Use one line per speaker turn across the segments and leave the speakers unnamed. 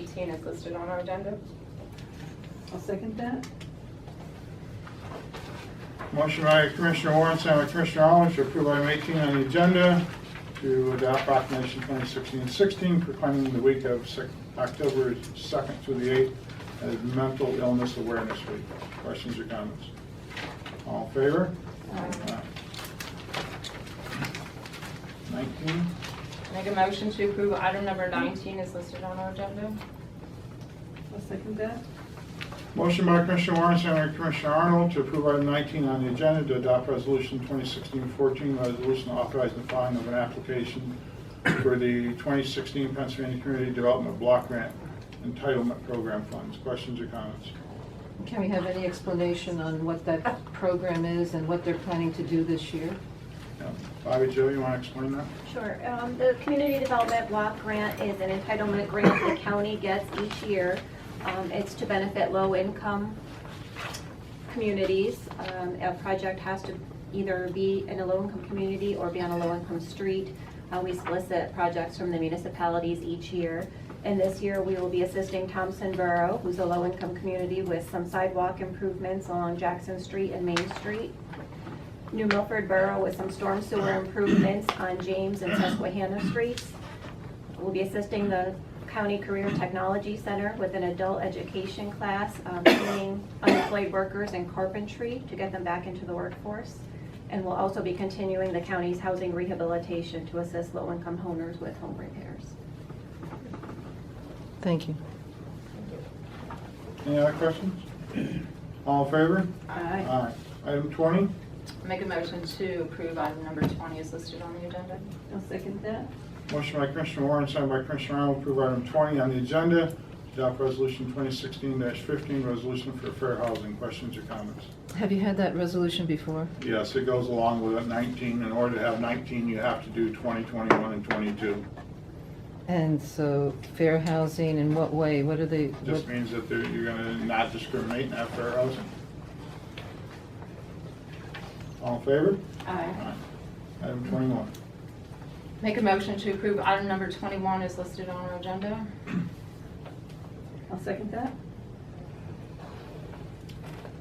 fifteen is listed on our agenda.
I'll second that.
Motion by Commissioner Warren, sent by Commissioner Arnold, to approve item 18 on the agenda to adopt proclamation 2016-16 proclaiming the week of Sec- October 2nd through the 8th as Mental Illness Awareness Week. Questions or comments? All in favor? Aye. 19,
Make a motion to approve item number nineteen is listed on our agenda.
I'll second that.
motion by Commissioner Warren, sent by Commissioner Arnold, to approve item 19 on the agenda to adopt resolution 2016-14, resolution authorizing the filing of an application for the 2016 Pennsylvania Community Development Block Grant Entitlement Program Funds. Questions or comments?
Can we have any explanation on what that program is and what they're planning to do this year?
Yeah. Bobby, Joe, you want to explain that?
Sure. Um, The Community Development Block Grant is an entitlement grant the county gets each year. Um, It's to benefit low-income communities. Um, A project has to either be in a low-income community or be on a low-income street. Uh, We solicit projects from the municipalities each year. And this year, we will be assisting Thompson Borough, who's a low-income community, with some sidewalk improvements along Jackson Street and Main Street. New Milford Borough with some storm sewer improvements on James and Susquehanna Streets. We'll be assisting the County Career Technology Center with an adult education class, um, training unemployed workers in carpentry to get them back into the workforce. And we'll also be continuing the county's housing rehabilitation to assist low-income owners with home repairs.
Thank you.
Any other questions? All in favor?
Aye.
Aye. Item 20,
Make a motion to approve item number twenty is listed on the agenda.
I'll second that.
motion by Commissioner Warren, second by Commissioner Arnold, approve item 20 on the agenda, to adopt resolution 2016-15, resolution for fair housing. Questions or comments?
Have you had that resolution before?
Yes, it goes along with it, 19. In order to have 19, you have to do 20, 21, and 22.
And so fair housing, in what way? What are they? what-
Just means that they're- you're going to not discriminate and have fair housing. All in favor?
Aye.
Aye. Item 21.
Make a motion to approve item number twenty-one is listed on our agenda.
I'll second that.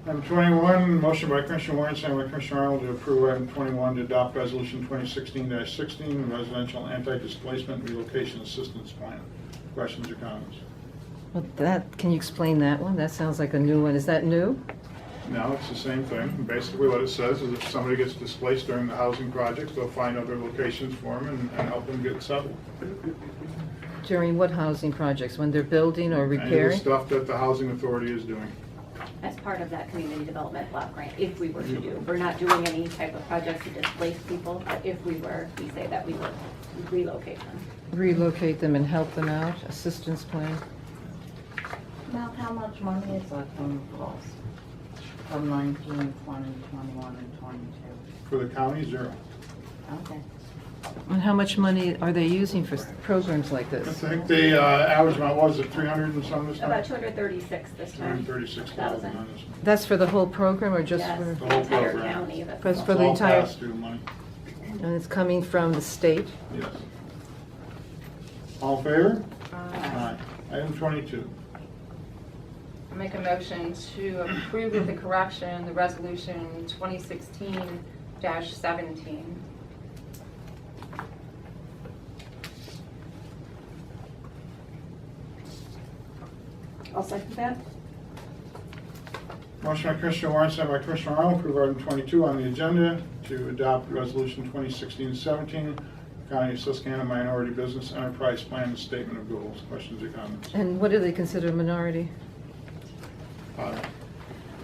Item 21, motion by Commissioner Warren, second by Commissioner Arnold to approve item 21 to adopt resolution 2016-16, residential anti-displacement relocation assistance plan. Questions or comments?
Well, that, can you explain that one? That sounds like a new one. Is that new?
No, it's the same thing. Basically, what it says is if somebody gets displaced during the housing project, they'll find other locations for them and and help them get settled.
During what housing projects? When they're building or
Any of the
repairing?
stuff that the housing authority is doing.
as part of that community development block grant, if we were to do. We're not doing any type of project to displace people, but if we were, we say that we would relocate them.
Relocate them and help them out? Assistance plan?
About how much money is that going to cost from 19, 20, 21, and 22?
For the county, zero.
Okay.
And how much money are they using for s- programs like
I
this?
think the uh, average amount was at 300 and some this time?
About 236 this time.
236,000 on this one.
That's for the whole program or just
Yes,
for?
The whole
entire
program.
county, that's
Because
all.
for the
It's all
entire-
pass-through money,
And it's coming from the state?
yes. All in favor? Aye. Item 22.
I Make a motion to approve with the correction, the resolution twenty sixteen seventeen.
I'll second that.
Motion by Commissioner Warren, sent by Commissioner Arnold, approve item 22 on the agenda to adopt Resolution 2016-17, County of Susquehanna Minority Business Enterprise Plan and Statement of Goals. Questions or comments?
And what do they consider minority?
Bobby?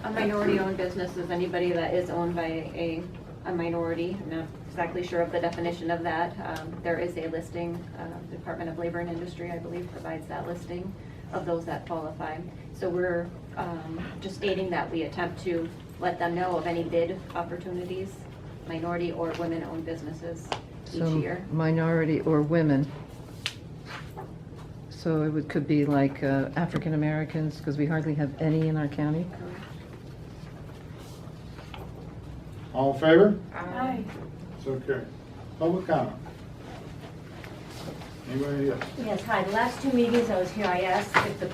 A minority-owned business is anybody that is owned by a, a minority. I'm not exactly sure of the definition of that. Um, There is a listing, uh, Department of Labor and Industry, I believe, provides that listing of those that qualify. So we're um, just stating that we attempt to let them know of any bid opportunities, minority or women-owned businesses each
So,
year.
Minority or women. So it would, could be like uh, African Americans, because we hardly have any in our county.
All in favor?
Aye.
So carried. Public comment?
Anybody, yes?
Yes, hi, the last two meetings I was here, I asked if the